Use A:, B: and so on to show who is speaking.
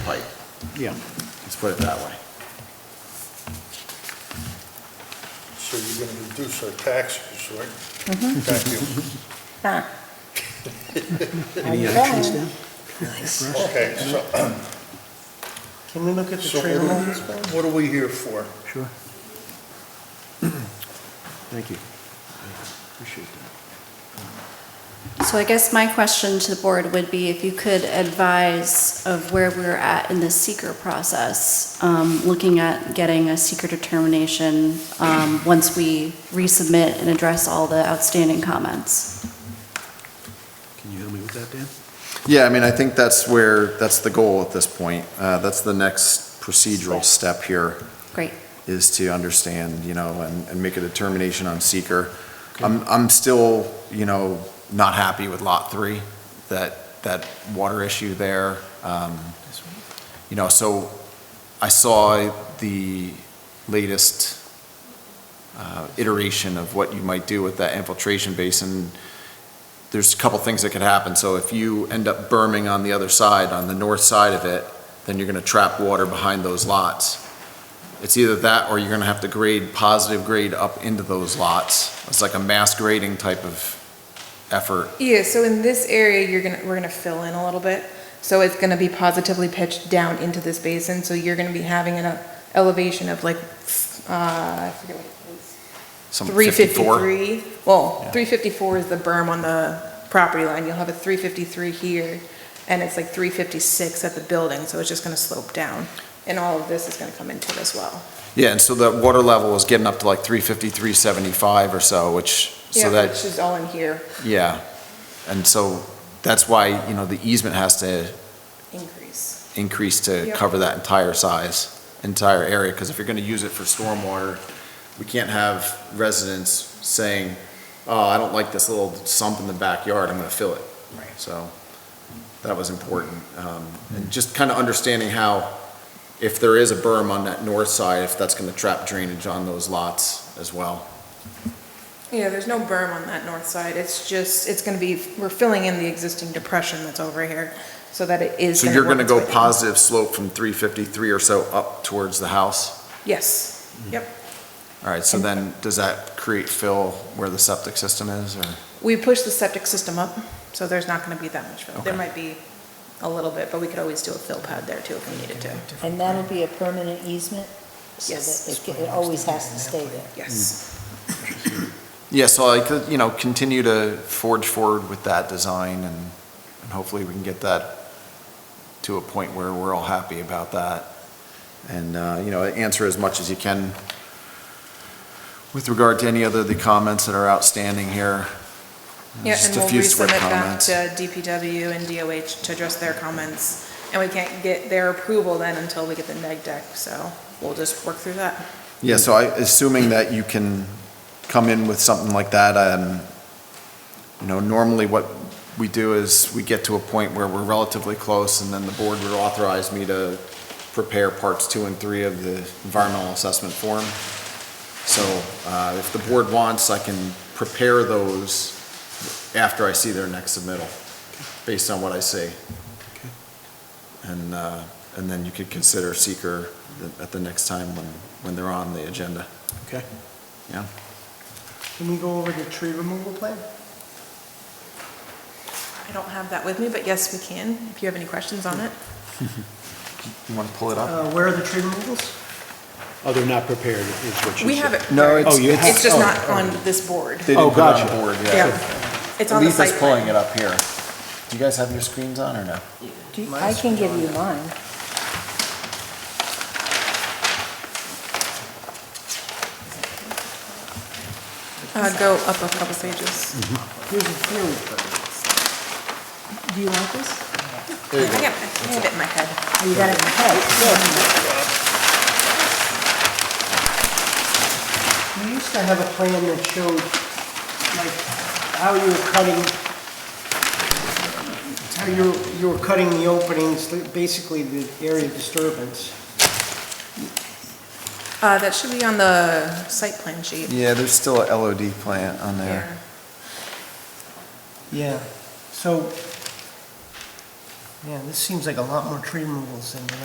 A: pipe,
B: Yeah.
A: let's put it that way.
C: So you're gonna reduce our taxes, right? Thank you.
D: Huh.
B: Any other
D: Okay.
B: trees down?
C: Okay, so
E: Can we look at the
C: So
E: tree
C: what do we-
E: removals? first?
C: what are we here for?
B: Sure. Thank you. Appreciate that.
F: So I guess my question to the board would be if you could advise of where we're at in the seeker process, um, looking at getting a seeker determination um, once we resubmit and address all the outstanding comments.
B: Can you help me with that, Dan?
A: Yeah, I mean, I think that's where, that's the goal at this point. Uh, That's the next procedural step here.
F: Great.
A: Is to understand, you know, and, and make a determination on seeker. I'm, I'm still, you know, not happy with Lot 3, that, that water issue there. Um, You know, so I saw the latest uh, iteration of what you might do with that infiltration basin there's a couple things that could happen. So if you end up berming on the other side, on the north side of it, then you're gonna trap water behind those lots. It's either that or you're gonna have to grade, positive grade up into those lots. It's like a mass grading type of effort.
G: Yeah, so in this area, you're gonna, we're gonna fill in a little bit, so it's gonna be positively pitched down into this basin, so you're gonna be having an elevation of like, uh, I forget what it is.
A: Some 54.
G: 353, well,
A: Yeah.
G: 354 is the berm on the property line, you'll have a 353 here, and it's like 356 at the building, so it's just gonna slope down, and all of this is gonna come into it as well.
A: Yeah, and so that water level is getting up to like 350, 375 or so, which,
G: Yeah,
A: so that,
G: Which is all in here,
A: yeah. And so that's why, you know, the easement has to
G: increase.
A: increase to
G: Yep.
A: cover that entire size, entire area, because if you're gonna use it for stormwater, we can't have residents saying, oh, I don't like this little sump in the backyard, I'm gonna fill it. Right. So, that was important, um, and just kind of understanding how, if there is a berm on that north side, if that's gonna trap drainage on those lots as well.
G: Yeah, there's no berm on that north side, it's just, it's gonna be, we're filling in the existing depression that's over here, so that it is.
A: So you're
G: work
A: gonna
G: its
A: go
G: way down.
A: positive slope from three fifty-three or so up towards the house?
G: Yes,
A: Mm-hmm.
G: yep.
A: All right, so then, does that create fill where the septic system is, or?
G: We push the septic system up, so there's not gonna be that much fill. There
A: Okay.
G: might be a little bit, but we could always do a fill pad there too if we needed to.
D: And that'll be a permanent easement? so
G: Yes.
D: that it- It always has to stay there.
G: Yes.
A: Yeah, so I could, you know, continue to forge forward with that design and, and hopefully we can get that to a point where we're all happy about that. And, uh, you know, answer as much as you can with regard to any other of the comments that are outstanding here.
G: Yeah,
A: Mm. Just
G: and
A: a
G: we'll
A: few swift
G: resubmit back
A: comments.
G: to DPW and DOH to address their comments. And we can't get their approval then until we get the neg deck, so we'll just work through that.
A: Yeah, so I, assuming that you can come in with something like that, um, you know, normally what we do is we get to a point where we're relatively close and then the board would authorize me to prepare parts two and three of the environmental assessment form. So, uh, if the board wants, I can prepare those after I see their next submittal, based on what I see. And, uh, and then you could consider seeker at the next time when, when they're on the agenda.
B: Okay.
A: Yeah.
E: Can we go over the tree removal plan?
G: I don't have that with me, but yes, we can, if you have any questions on it.
A: You want to pull it up?
E: Uh, Where are the tree removals?
B: Oh, they're not prepared, is what you
G: We
B: said.
G: have it.
A: No,
G: prepared.
A: it's-
B: Oh, you have-
G: It's just
B: oh,
G: not on this board.
A: They
B: Oh,
A: didn't put it on
B: gotcha.
A: board,
G: Yeah. It's on the site
A: Letha's pulling
G: plan.
A: it up here. Do you guys have your screens on or no?
D: Do you- I can give you mine.
G: Uh, go up a couple pages.
E: Here's a few.
D: Do you want this?
G: I think I I had it in my head.
D: Oh, You got it in your head, yeah.
E: You used to have a plan that showed, like, how you were cutting, how you, were- you were cutting the openings, basically the area of disturbance.
G: Uh, that should be on the site plan sheet.
A: Yeah, there's still a LOD plant on
G: Yeah.
E: Yeah, so, yeah, this seems like a lot more tree removals than